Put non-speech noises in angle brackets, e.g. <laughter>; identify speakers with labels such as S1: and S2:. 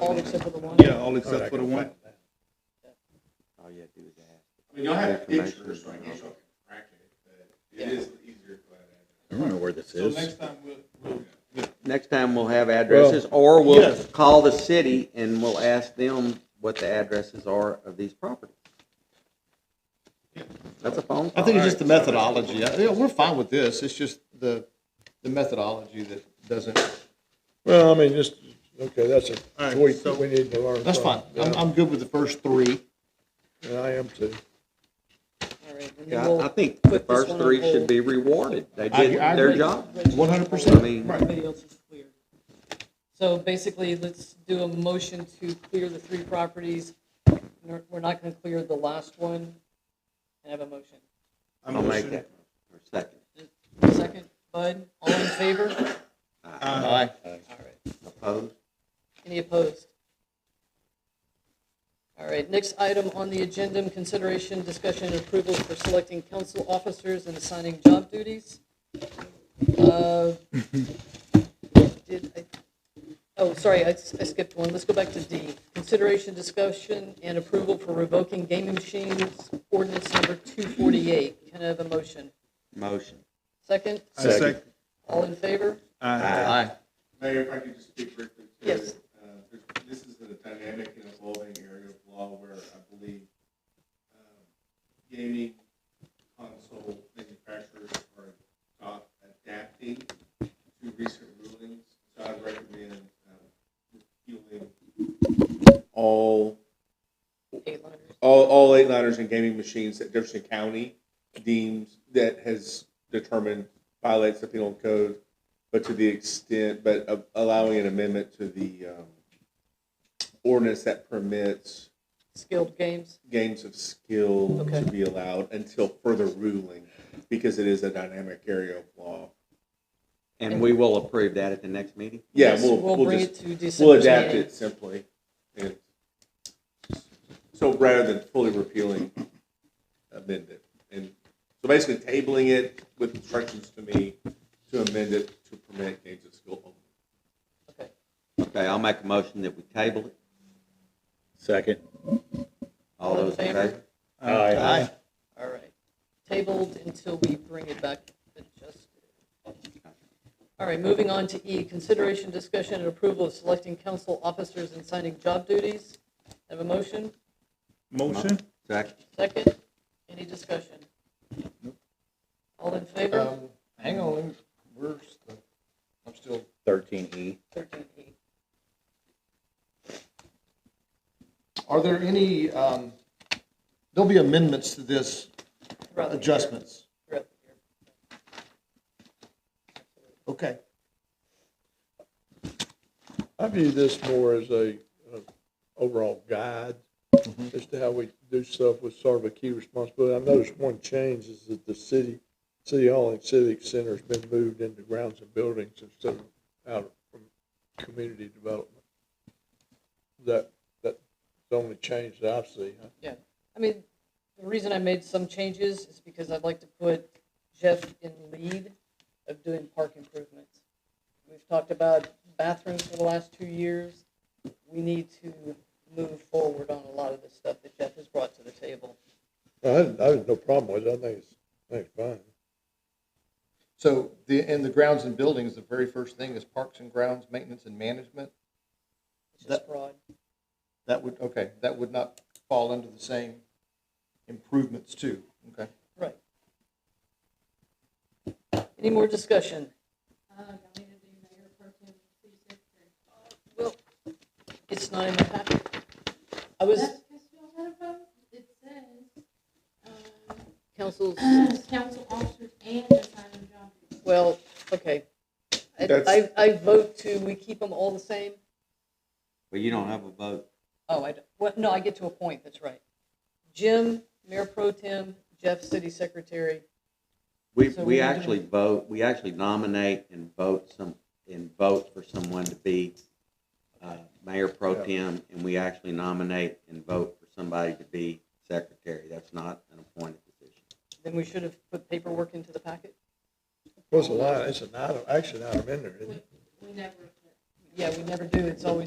S1: All except for the one?
S2: Yeah, all except for the one.
S3: All you have to do is ask.
S4: I mean, y'all have
S3: Information
S4: pictures, so I guess
S3: is
S4: y'all can track it, but it is easier for
S5: I
S4: that.
S5: remember where this
S2: So
S5: is.
S2: next time we'll, we'll,
S3: Next time we'll have addresses, or we'll
S2: yes.
S3: call the city and we'll ask them what the addresses are of these properties. That's a phone
S5: I
S3: call.
S5: think it's just the methodology. I- Yeah, we're fine with this. It's just the, the methodology that doesn't,
S6: Well, I mean, just, okay, that's
S2: All
S6: a
S2: right,
S6: tweak
S2: so-
S6: that we need to learn.
S5: that's fine.
S6: from.
S5: I'm,
S6: Yeah,
S5: I'm good with the first three.
S6: yeah, I am too.
S1: All right, and then
S3: Yeah, I- I
S1: we'll
S3: think the
S1: put this
S3: first
S1: one on
S3: three should
S1: hold.
S3: be rewarded. They
S5: I-
S3: did
S5: I
S3: their
S5: agree.
S3: job.
S5: One hundred
S3: I
S5: percent.
S3: mean,
S1: Everybody else is clear. So basically, let's do a motion to clear the three properties. We're we're not going to clear the last one. Can I have a motion?
S3: I'll make that for a second.
S1: Second, Bud, all in favor?
S5: Aye.
S1: All right.
S3: Opposed?
S1: Any opposed? All right, next item on the agenda, consideration, discussion, and approval for selecting council officers and assigning job duties. Uh, Did I? Oh, sorry, I s- I skipped one. Let's go back to D. Consideration, discussion, and approval for revoking gaming machines ordinance number 248. Can I have a motion?
S3: Motion.
S1: Second?
S2: I second.
S1: All in favor?
S2: Aye.
S5: Aye.
S4: Uh, Mayor, if I could just speak briefly to
S1: Yes.
S4: it. Uh, there's- This is a dynamic and evolving area of law where I believe um, gaming console manufacturers are not adapting to recent rulings. So I'd recommend um, repealing all,
S1: Eight liners.
S4: all, all eight liners and gaming machines that Jefferson County deems that has determined violates the penal code, but to the extent, but of allowing an amendment to the um, ordinance that permits
S1: Skilled games.
S4: games of skill
S1: Okay.
S4: to be allowed until further ruling, because it is a dynamic area of law.
S3: And we will approve that at the next meeting?
S4: Yeah,
S1: Yes,
S4: we'll, we'll
S1: bring it
S4: just,
S1: to December.
S4: we'll adapt it simply. and- So rather than fully repealing, amend it. And so basically tabling it with instructions to me to amend it to permit games of skill only.
S1: Okay.
S3: Okay, I'll make a motion that we table it.
S5: Second.
S3: All those in favor?
S6: Uh,
S5: Aye.
S1: All right. Tabled until we bring it back adjusted. All right, moving on to E, consideration, discussion, and approval of selecting council officers and signing job duties. Have a motion?
S2: Motion?
S3: Second.
S1: Second? Any discussion? All in favor?
S5: Um, hang on, let me- where's the, I'm still.
S3: Thirteen E.
S1: 13E.
S5: Are there any, um, there'll be amendments to this,
S1: Throughout the year.
S5: adjustments.
S1: Throughout the year.
S5: Okay.
S6: I view this more as a, uh, overall guide
S5: Mm-hmm.
S6: as to how we do stuff with sort of a key responsibility. I noticed one change is that the city, city hall and civic center's been moved into grounds and buildings instead of out from community development. That, that's the only change that I've seen.
S1: Yeah, I mean, the reason I made some changes is because I'd like to put Jeff in lead of doing park improvements. We've talked about bathrooms for the last two years. We need to move forward on a lot of the stuff that Jeff has brought to the table.
S6: I, had- I had no problem with it. I think it's, I think it's fine.
S5: So the, and the grounds and buildings, the very first thing is parks and grounds, maintenance and management.
S1: It's just
S5: That-
S1: broad.
S5: That would, okay, that would not fall under the same improvements too, okay?
S1: Right. Any more discussion?
S7: Uh,
S1: Well, it's not in the packet. I was,
S7: That's because y'all had a vote. It says,
S1: council's
S7: um, <clears throat> council officers and assigned job. duties.
S1: Well, okay. I-
S4: That's-
S1: I, I vote to, we keep them all the same?
S3: Well, you don't have a vote.
S1: Oh, I, don't- well, no, I get to a point, that's right. Jim, Mayor Pro Tem, Jeff, City Secretary.
S3: We,
S1: So
S3: we
S1: we're
S3: actually vote, we actually nominate and vote some, and vote for someone to be uh, mayor pro tem, and we actually nominate and vote for somebody to be secretary. That's not an appointed position.
S1: Then we should have put paperwork into the packet?
S6: Well, it's a line, it's an item, action item in there, isn't it?
S7: We never.
S1: Yeah, we never do, it's always